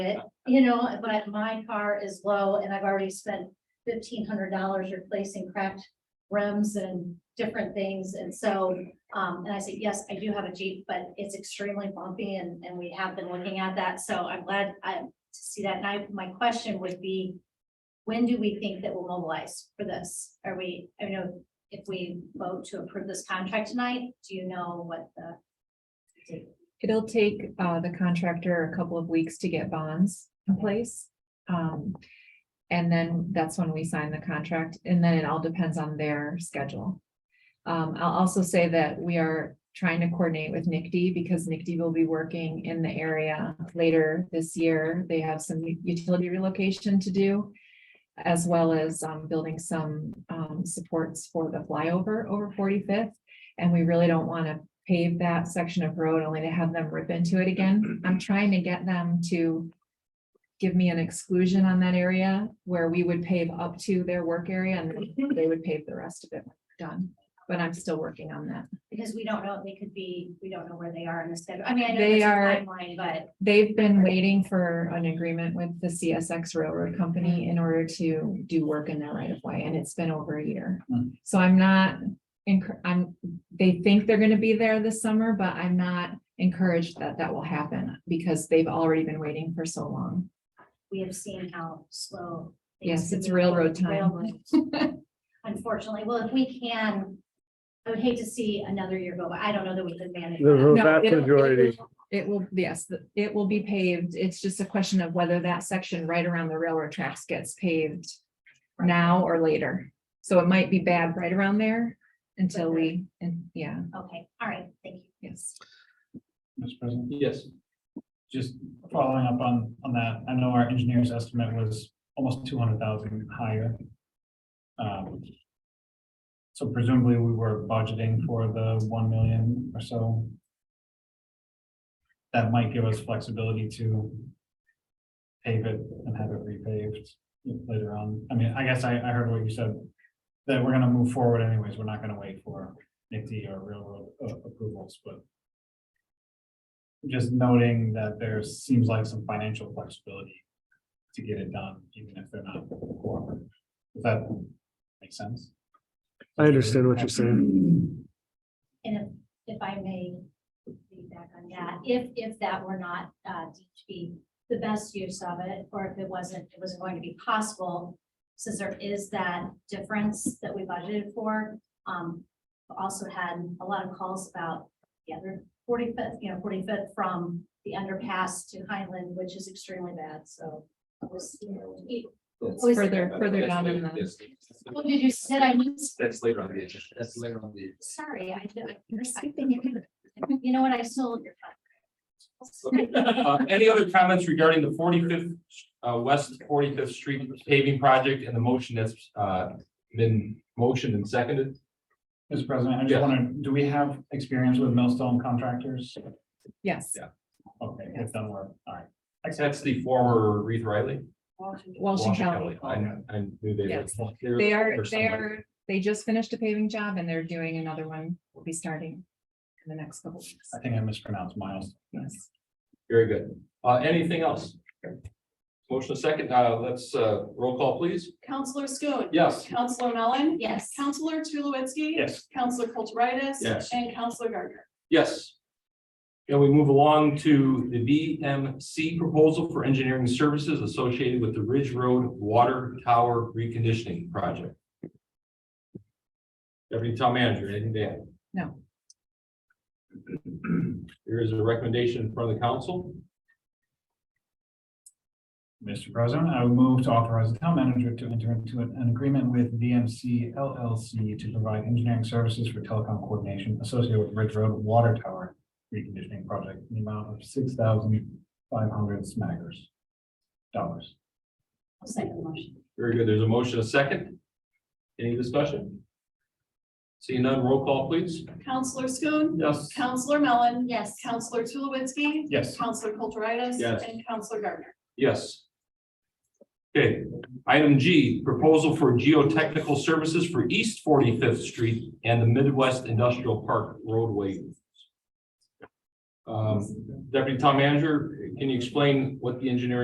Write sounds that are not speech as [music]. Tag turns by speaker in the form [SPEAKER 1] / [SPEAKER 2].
[SPEAKER 1] it, you know, but my car is low and I've already spent fifteen hundred dollars replacing cracked rims and different things, and so, um, and I said, yes, I do have a Jeep, but it's extremely bumpy and, and we have been looking at that, so I'm glad I, to see that, and I, my question would be, when do we think that we'll mobilize for this? Are we, I know, if we vote to approve this contract tonight, do you know what the?
[SPEAKER 2] It'll take uh the contractor a couple of weeks to get bonds in place. Um, and then that's when we sign the contract, and then it all depends on their schedule. Um, I'll also say that we are trying to coordinate with NICD because NICD will be working in the area later this year. They have some utility relocation to do. As well as um building some um supports for the flyover over forty-fifth. And we really don't want to pave that section of road only to have them rip into it again. I'm trying to get them to give me an exclusion on that area where we would pave up to their work area and they would pave the rest of it when we're done. But I'm still working on that.
[SPEAKER 1] Because we don't know, they could be, we don't know where they are in the schedule, I mean, I know
[SPEAKER 2] They
[SPEAKER 1] there's a
[SPEAKER 2] are-
[SPEAKER 1] timeline, but.
[SPEAKER 2] They've been waiting for an agreement with the CSX Railroad Company in order to do work in their right of way, and it's been over a year. So I'm not, encour- I'm, they think they're gonna be there this summer, but I'm not encouraged that that will happen because they've already been waiting for so long.
[SPEAKER 1] we have seen how slow. things
[SPEAKER 2] Yes,
[SPEAKER 1] can
[SPEAKER 2] it's
[SPEAKER 1] move.
[SPEAKER 2] railroad time. [laughs]
[SPEAKER 1] Railroad. Unfortunately, well, if we can, I would hate to see another year go, by. I don't know that we could manage.
[SPEAKER 3] The
[SPEAKER 1] that.
[SPEAKER 3] ro-
[SPEAKER 2] No,
[SPEAKER 3] vast
[SPEAKER 2] it'll- it
[SPEAKER 3] majority.
[SPEAKER 2] will- It will, yes, the- it will be paved. It's just a question of whether that section right around the railroad tracks gets paved now or later. So it might be bad right around there until we, and yeah,
[SPEAKER 1] Okay, all right, thank you.
[SPEAKER 2] yes.
[SPEAKER 4] Mr. President,
[SPEAKER 5] Yes,
[SPEAKER 4] just following up on, on that, I know our engineer's estimate was almost two hundred thousand higher. Um, So presumably we were budgeting for the one million or so. That might give us flexibility to pave it and have it repaved later on. I mean, I guess I, I heard what you said, that we're gonna move forward anyways, we're not gonna wait for NICD or railroad uh, approvals, but just noting that there seems like some financial flexibility to get it done, even if they're not cooperative. Does that make sense?
[SPEAKER 3] I understand what you're saying.
[SPEAKER 1] And if, if I may feedback on that, if, if that were not, uh, to be the best use of it, or if it wasn't, it wasn't going to be possible, since there is that difference that we budgeted for, um, also had a lot of calls about the other forty-fifth, you know, forty-fifth from the underpass to Highland, which is extremely bad, so. it was, you know, it-
[SPEAKER 5] that's-
[SPEAKER 1] Always-
[SPEAKER 2] Further, further
[SPEAKER 5] that's
[SPEAKER 2] down in
[SPEAKER 5] later,
[SPEAKER 2] the,
[SPEAKER 5] yes.
[SPEAKER 1] What did you said I missed?
[SPEAKER 5] That's later on the agenda, that's later on the.
[SPEAKER 1] Sorry, I, you're skipping. You know what, I sold your.
[SPEAKER 6] Uh, Any other comments regarding the forty-fifth, uh, West Forty-Fifth Street paving project and the motion that's, uh, been motioned and seconded?
[SPEAKER 4] Mr. President, I
[SPEAKER 6] Yeah.
[SPEAKER 4] just wanna, do we have experience with millstone contractors?
[SPEAKER 2] yes.
[SPEAKER 4] Okay, we've done work, all right.
[SPEAKER 6] That's the former Reeve Riley.
[SPEAKER 2] Walsh and Kelly.
[SPEAKER 6] I, I knew they
[SPEAKER 2] Yes.
[SPEAKER 6] were.
[SPEAKER 2] They are,
[SPEAKER 6] or
[SPEAKER 2] they
[SPEAKER 6] somebody.
[SPEAKER 2] are, they just finished a paving job and they're doing another one. Will be starting in the next couple of weeks.
[SPEAKER 4] I think I mispronounced Miles.
[SPEAKER 2] Yes.
[SPEAKER 6] Very good. Uh, anything else? Motion second, uh, let's, uh, roll call, please.
[SPEAKER 7] Counselor Schoen.
[SPEAKER 6] Yes.
[SPEAKER 7] Counselor Mellon.
[SPEAKER 1] Yes.
[SPEAKER 7] Counselor Tulowitzki.
[SPEAKER 4] Yes.
[SPEAKER 7] Counselor Kulturitis.
[SPEAKER 6] Yes.
[SPEAKER 7] And Counselor Gardner.
[SPEAKER 6] Yes. Can we move along to the VMC proposal for engineering services associated with the Ridge Road Water Tower Reconditioning Project? Deputy Town Manager, anything to add?
[SPEAKER 2] No.
[SPEAKER 6] There is a recommendation in front of the council.
[SPEAKER 4] Mr. President, I would move to authorize the town manager to enter into an an agreement with VMC LLC to provide engineering services for telecom coordination associated with Ridge Road Water Tower reconditioning project in the amount of six thousand five hundred smackers dollars.
[SPEAKER 1] I'll second the motion.
[SPEAKER 6] Very good. There's a motion, a second. Any discussion? Seeing none, roll call, please.
[SPEAKER 7] Counselor Schoen.
[SPEAKER 6] Yes.
[SPEAKER 7] Counselor Mellon.
[SPEAKER 1] Yes.
[SPEAKER 7] Counselor Tulowitzki.
[SPEAKER 4] Yes.
[SPEAKER 7] Counselor Kulturitis.
[SPEAKER 6] Yes.
[SPEAKER 7] And Counselor Gardner.
[SPEAKER 6] Yes. Okay, item G, proposal for geotechnical services for East Forty-Fifth Street and the Midwest Industrial Park roadway. Um, Deputy Town Manager, can you explain what the engineering